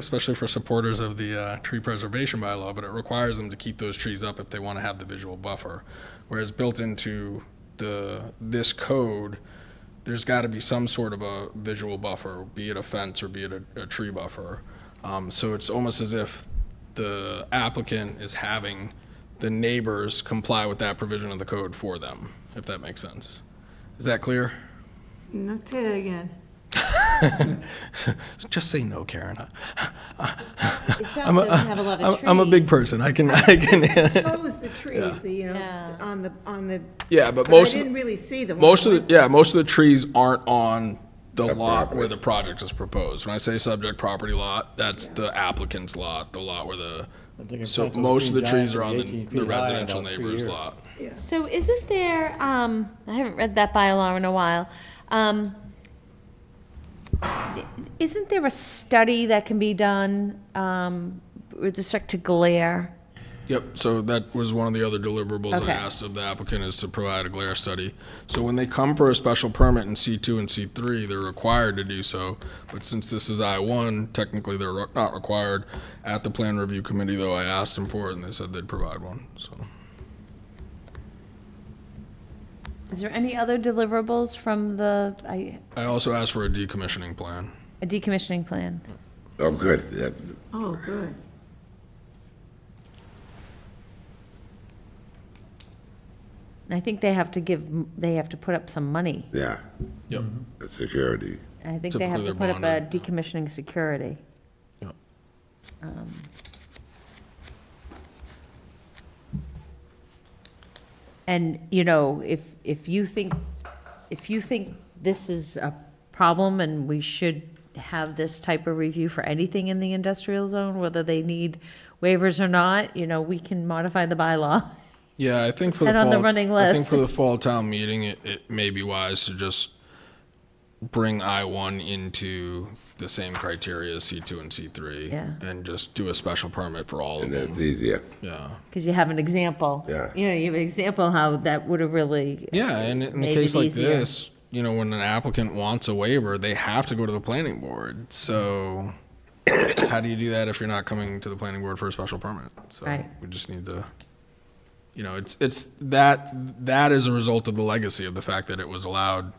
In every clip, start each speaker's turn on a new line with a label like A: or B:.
A: especially for supporters of the uh, tree preservation bylaw, but it requires them to keep those trees up if they want to have the visual buffer. Whereas built into the, this code, there's got to be some sort of a visual buffer, be it a fence or be it a, a tree buffer. Um, So it's almost as if the applicant is having the neighbors comply with that provision of the code for them, if that makes sense. Is that clear?
B: No, say that again.
A: Just say no, Karen.
C: It sounds like doesn't have a lot of
A: I'm,
C: trees.
A: I'm a big person. I can, I can.
B: Those, the trees, the, you know,
C: Yeah.
B: on the, on the,
A: yeah, but
B: but I
A: most, of
B: didn't
A: the-
B: really see them.
A: most of the, yeah, most of the trees aren't on the lot where the project is proposed. When I say subject property lot, that's the applicant's lot, the lot where the,
D: I think in
A: so
D: fact those
A: most of the
D: green
A: trees
D: giants
A: are
D: will
A: on
D: be
A: the
D: 18
A: the
D: feet high in
A: residential
D: about three
A: neighbor's
D: years.
A: lot.
C: So isn't there, um, I haven't read that bylaw in a while. Um, isn't there a study that can be done, um, with respect to glare?
A: Yep, so that was one of the other deliverables I
C: Okay.
A: asked of the applicant is to provide a glare study. So when they come for a special permit in C2 and C3, they're required to do so. But since this is I1, technically they're re- not required. At the plan review committee, though, I asked them for it and they said they'd provide one, so.
C: Is there any other deliverables from the, I,
A: I also asked for a decommissioning plan.
C: a decommissioning plan?
E: Oh, good. That-
B: Oh, good.
C: And I think they have to give, they have to put up some money.
E: Yeah,
A: Yep.
C: Mm-hmm.
E: the security.
C: I think they have to
A: Typically,
C: put
A: they're
C: up a decommissioning security.
A: Yep.
C: Um, And, you know, if, if you think, if you think this is a problem and we should have this type of review for anything in the industrial zone, whether they need waivers or not, you know, we can modify the bylaw.
A: Yeah, I think for the
C: And on the
A: fall-
C: running
A: I think
C: list.
A: for the fall town meeting, it, it may be wise to just bring I one into the same criteria as C two and C three.
C: Yeah.
A: And just do a special permit for all of
E: And
A: them.
E: that's easier.
A: Yeah.
C: Because you have an example.
E: Yeah.
C: You know, you have an example how that would have really
A: Yeah, and in a
C: Made
A: case
C: it
A: like
C: easier.
A: this, you know, when an applicant wants a waiver, they have to go to the planning board. So how do you do that if you're not coming to the planning board for a special permit? So
C: Right.
A: we just need to, you know, it's, it's that, that is a result of the legacy of the fact that it was allowed in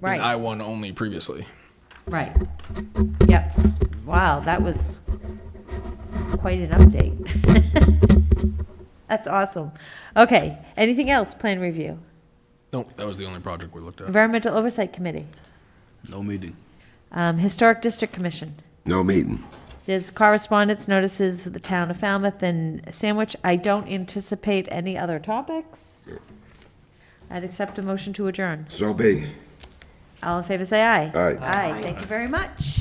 C: Right.
A: I one only previously.
C: Right. Yep. Wow, that was quite an update. That's awesome. Okay, anything else, plan review?
A: No, that was the only project we looked at.
C: Environmental Oversight Committee,
F: No meeting.
C: um, Historic District Commission.
E: No meeting.
C: There's correspondence notices for the town of Falmouth and Sandwich. I don't anticipate any other topics. I'd accept a motion to adjourn.
E: So be.
C: All in favor, say aye.
E: Aye.
C: Aye, thank you very much.